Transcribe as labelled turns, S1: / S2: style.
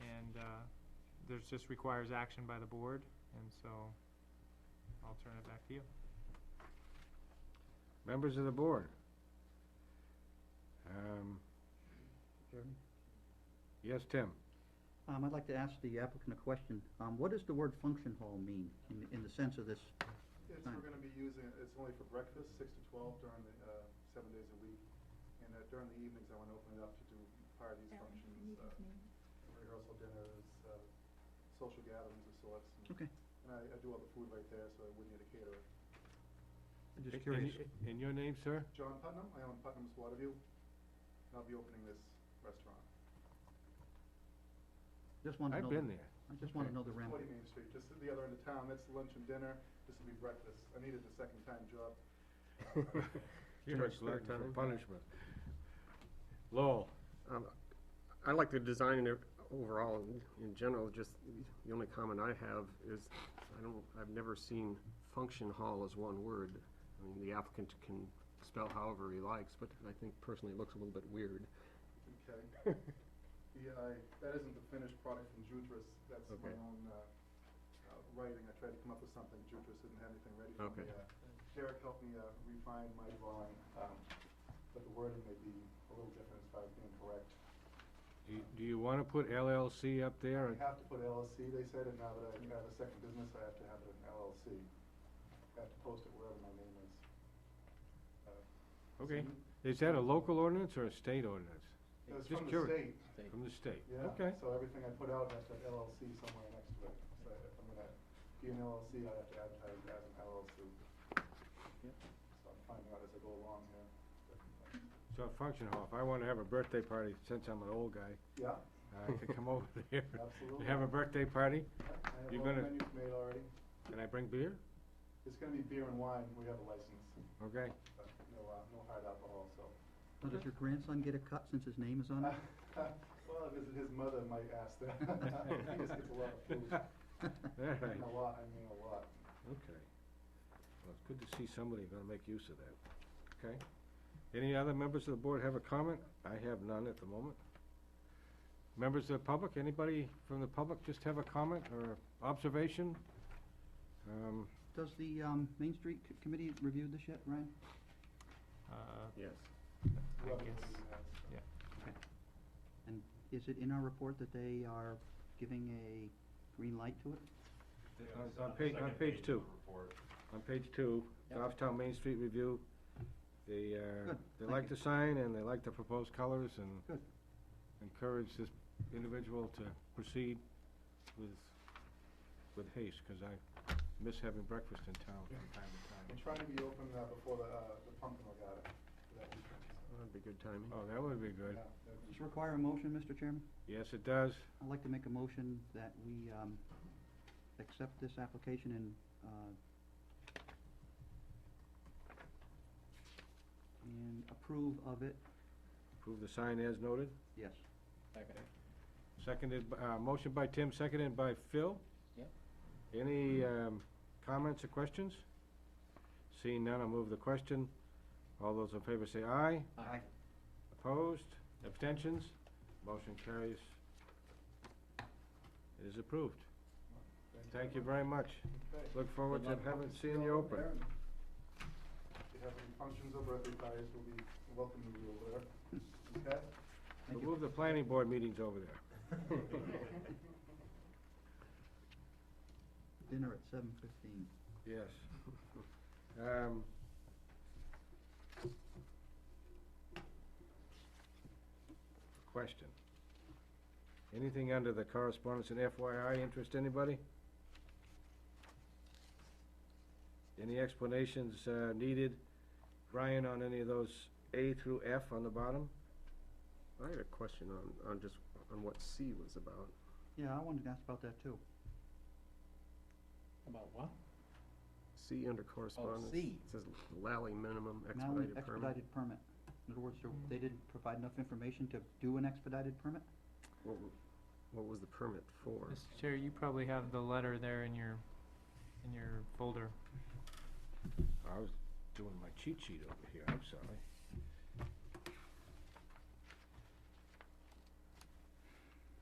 S1: and, uh, there's just requires action by the board, and so I'll turn it back to you.
S2: Members of the board? Um,
S3: Chairman?
S2: Yes, Tim?
S3: Um, I'd like to ask the applicant a question. Um, what does the word function hall mean in, in the sense of this?
S4: It's,
S3: Fine.
S4: we're gonna be using, it- it's only for breakfast, six to twelve during the, uh, seven days a week. And uh, during the evenings, I wanna open it up to do parties, functions, uh, rehearsal dinners, uh, social gatherings of sorts. and-
S3: Okay.
S4: And I, I do all the food right there, so I wouldn't need a caterer.
S3: I'm
S2: And-
S3: just curious.
S2: and- And your name, sir?
S4: John Putnam, I own Putnam's Waterview, and I'll be opening this restaurant,
S3: Just want to know.
S2: I've
S3: the-
S2: been there.
S3: I just want to
S2: Okay.
S3: know the ramp.
S4: forty Main Street, just at the other end of town, that's lunch and dinner, this will be breakfast. I needed a second time job.
S2: You're a
S5: Judge
S2: glutton for
S5: Sartani.
S2: punishment. Lowell,
S5: Um, I like the design in it overall, in- in general, just, the only comment I have is, I don't, I've never seen function hall as one word. I mean, the applicant can spell however he likes, but I think personally it looks a little bit weird.
S4: Okay. Yeah, I, that isn't the finished product from Jutris, that's my
S5: Okay.
S4: own, uh, uh, writing, I tried to come up with something, Jutris didn't have anything ready for
S5: Okay.
S4: me. Uh, Derek helped me, uh, refine my drawing, um, but the wording may be a little different as far as being correct.
S2: do you- do you want to put LLC up there?
S4: I have to put LLC, they said, and now that I have a second business, I have to have it in LLC. I have to post it wherever my name is. Uh,
S2: Okay.
S4: so
S2: Is that a local ordinance or a state ordinance?
S4: It was
S2: Just
S4: from the
S2: curious.
S4: state.
S2: From the state?
S4: Yeah,
S2: Okay.
S4: so everything I put out has to have LLC somewhere next to it. So if I'm gonna be an LLC, I have to advertise it as an LLC. So I'm finding out as I go along here.
S2: So a function hall, if I want to have a birthday party, since I'm an old guy,
S4: Yeah,
S2: I could come over there.
S4: Absolutely.
S2: Have a birthday party,
S4: I have
S2: You're
S4: all the
S2: gonna-
S4: menus made already.
S2: and I bring beer?
S4: It's gonna be beer and wine, we have a license,
S2: Okay.
S4: but no, uh, no hard alcohol, so.
S3: Now, does your grandson get a cut since his name is on it?
S4: Well, his, his mother might ask that. He just gets a lot of food.
S2: All right.
S4: A lot, I mean, a lot.
S2: Okay. Well, it's good to see somebody gonna make use of that, okay? Any other members of the board have a comment? I have none at the moment. Members of the public, anybody from the public just have a comment or observation? Um,
S3: Does the, um, Main Street c- Committee review this yet, Ryan?
S1: Uh,
S5: Yes.
S1: I
S4: Whoever
S1: guess,
S4: really has.
S3: And is it in our report that they are giving a green light to it?
S2: On- On page, on page two. On page two, Goffstown Main Street Review, they, uh,
S3: Good,
S2: they
S3: thank
S2: like the
S3: you.
S2: sign and they like the proposed colors and
S3: Good.
S2: encourage this individual to proceed with, with haste, because I miss having breakfast in town from time
S4: I'm
S2: to time.
S4: trying to be open uh, before the, uh, the pumpkin regatta. for that weekend, so.
S5: That'd be good timing.
S2: Oh, that would be good.
S4: Yeah, that'd be-
S3: Does this require a motion, Mr. Chairman?
S2: Yes, it does.
S3: I'd like to make a motion that we, um, accept this application and, uh, and approve of it,
S2: Approve the sign as noted.
S3: yes.
S2: Seconded, b- uh, motion by Tim, seconded by Phil.
S6: Yep.
S2: Any, um, comments or questions? Seeing none, I'll move the question. All those in favor say aye.
S3: Aye.
S2: Opposed? Abstentions? Motion carries. It is approved. Thank you very much.
S4: Okay.
S2: Look forward to
S6: Good luck.
S2: having, seeing you open.
S4: Aaron, If you have any functions or birthday parties, we'll be welcoming you over there. Okay?
S2: We'll
S3: Thank you.
S2: move the planning board meetings over there.
S3: Dinner at seven fifteen.
S2: Yes. Um, Question. Anything under the correspondence and FYI interest anybody? Any explanations uh, needed, Brian, on any of those A through F on the bottom?
S5: I had a question on, on just, on what C was about.
S3: Yeah, I wanted to ask about that too.
S6: About what?
S5: C under correspondence.
S6: C.
S5: It says Lally minimum
S3: Now we-
S5: expedited permit.
S3: Expedited permit. In other words, there- they didn't provide enough information to do an expedited permit?
S5: What, w- what was the permit for?
S1: Mr. Chair, you probably have the letter there in your, in your folder.
S2: I was doing my cheat sheet over here, I'm sorry.